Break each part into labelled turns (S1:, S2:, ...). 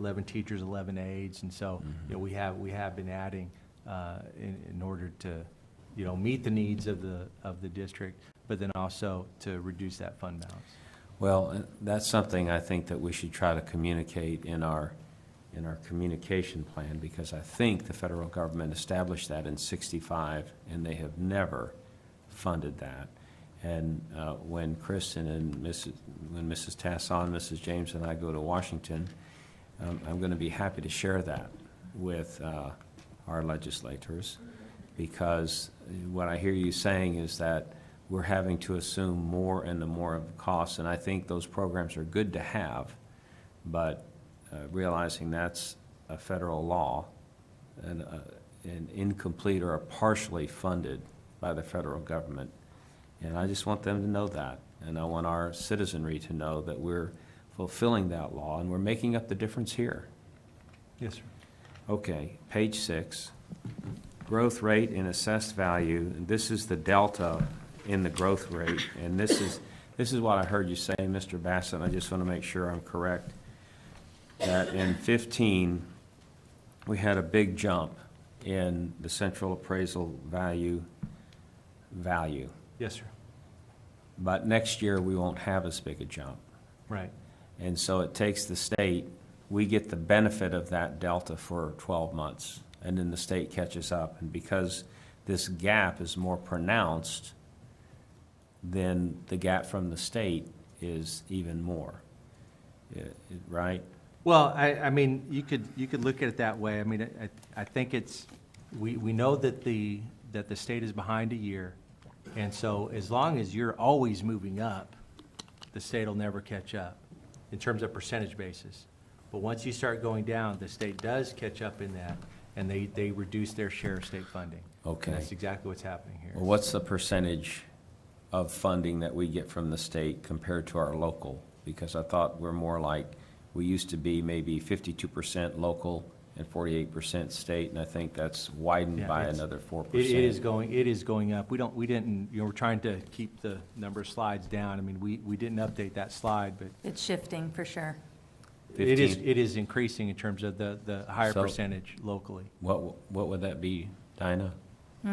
S1: 11 teachers, 11 aides, and so, you know, we have, we have been adding uh, in, in order to, you know, meet the needs of the, of the district, but then also to reduce that fund balance.
S2: Well, uh, that's something I think that we should try to communicate in our, in our communication plan, because I think the federal government established that in sixty-five, and they have never funded that. And uh, when Kristen and Mrs., when Mrs. Tasson, Mrs. James, and I go to Washington, um, I'm going to be happy to share that with uh, our legislators, because what I hear you saying is that we're having to assume more and the more of the costs, and I think those programs are good to have, but uh, realizing that's a federal law and, uh, and incomplete or partially funded by the federal government. And I just want them to know that, and I want our citizenry to know that we're fulfilling that law and we're making up the difference here.
S1: Yes, sir.
S2: Okay, page six, growth rate in assessed value, and this is the delta in the growth rate, and this is, this is what I heard you say, Mr. Bassett, and I just want to make sure I'm correct, that in fifteen, we had a big jump in the central appraisal value, value,
S1: Yes, sir.
S2: but next year, we won't have as big a jump.
S1: Right.
S2: And so it takes the state, we get the benefit of that delta for 12 months, and then the state catches up. And because this gap is more pronounced, then the gap from the state is even more, Yeah, it- right?
S1: Well, I, I mean, you could, you could look at it that way. I mean, I, I think it's, we, we know that the, that the state is behind a year. And so as long as you're always moving up, the state will never catch up in terms of percentage basis. But once you start going down, the state does catch up in that and they, they reduce their share of state funding. And
S2: Okay.
S1: that's exactly what's happening here.
S2: Well, what's the percentage of funding that we get from the state compared to our local? Because I thought we're more like, we used to be maybe fifty-two percent local and forty-eight percent state, and I think that's widened
S1: Yeah,
S2: by
S1: it's-
S2: another four
S1: It
S2: percent.
S1: it is going, it is going up. We don't, we didn't, you know, we're trying to keep the number of slides down. I mean, we, we didn't update that slide, but
S3: It's shifting, for sure.
S1: It is,
S2: 15.
S1: it is increasing in terms of the, the higher
S2: So-
S1: percentage locally.
S2: What, what would that be, Dinah? I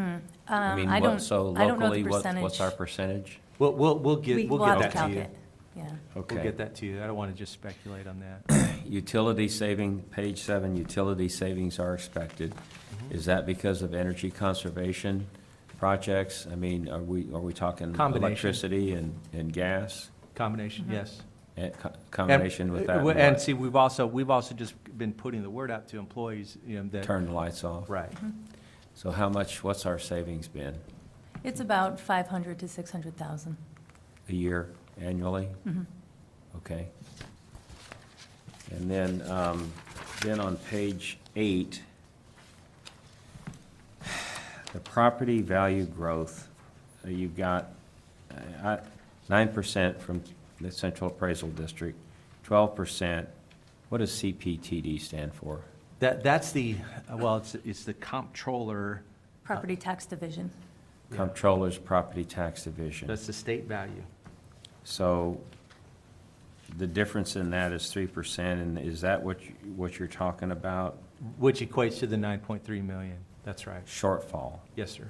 S3: Um,
S2: mean,
S3: I
S2: what-
S3: don't,
S2: So
S3: I don't know
S2: locally,
S3: the
S2: what,
S3: percentage.
S2: what's our percentage?
S1: We'll, we'll, we'll
S3: We-
S1: get,
S3: We'll
S1: we'll
S3: have to
S1: get that to
S3: calc
S1: you.
S3: it, yeah.
S1: We'll
S2: Okay.
S1: get that to you. I don't want to just speculate on
S3: Mm-hmm.
S1: that.
S2: Utility saving, page seven, utility savings are expected.
S1: Mm-hmm.
S2: Is that because of energy conservation projects? I mean, are we, are we talking
S1: Combination.
S2: electricity and, and gas?
S1: Combination,
S3: Mm-hmm.
S1: yes.
S2: Eh, co-
S1: And-
S2: Combination with that,
S1: uh,
S2: and
S1: And
S2: what?
S1: see, we've also, we've also just been putting the word out to employees, you know, that,
S2: turn the lights off?
S1: right.
S3: Mm-hmm.
S2: So how much, what's our savings been?
S3: It's about 500 to 600,000.
S2: A year annually? Okay. And then, um, then on page eight, the property value growth, uh, you've got uh, nine percent from the Central Appraisal District, twelve percent. What does CPTD stand for?
S1: That, that's the, well, it's, it's the comptroller,
S3: Property Tax Division.
S2: Comptroller's Property Tax Division.
S1: that's the state value.
S2: So the difference in that is three percent, and is that what, you- what you're talking about?
S1: Which equates to the nine point three million. That's right.
S2: Shortfall,
S1: Yes, sir.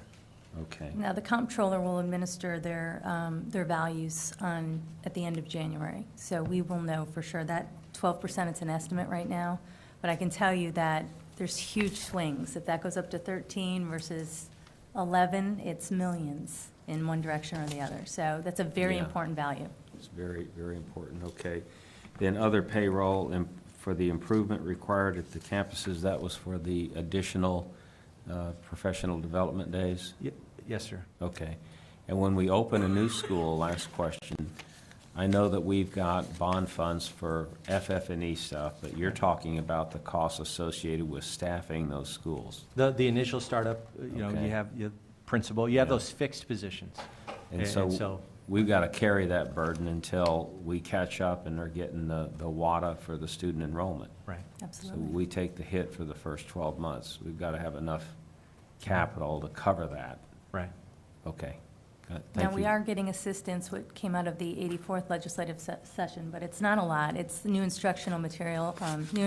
S2: okay.
S3: Now, the comptroller will administer their, um, their values on, at the end of January. So we will know for sure. That 12%, it's an estimate right now, but I can tell you that there's huge swings. If that goes up to 13 versus 11, it's millions in one direction or the other. So that's a very
S2: Yeah.
S3: important value.
S2: It's very, very important, okay. Then other payroll im- for the improvement required at the campuses, that was for the additional uh, professional development days?
S1: Ye- Yes, sir.
S2: Okay. And when we open a new school, last question, I know that we've got bond funds for FF&E E stuff, but you're talking about the costs associated with staffing those schools.
S1: The, the initial startup, uh, you know,
S2: Okay.
S1: you have, you have principal, you have
S2: Yeah.
S1: those fixed positions.
S2: And
S1: And
S2: so
S1: so-
S2: we've got to carry that burden until we catch up and are getting the, the WADA for the student enrollment.
S1: Right.
S2: So
S3: Absolutely.
S2: we take the hit for the first 12 months. We've got to have enough capital to cover that.
S1: Right.
S2: Okay. Got-
S3: Now,
S2: Thank
S3: we
S2: you.
S3: are getting assistance, what came out of the 84th legislative se- session, but it's not a lot. It's new instructional material, um, new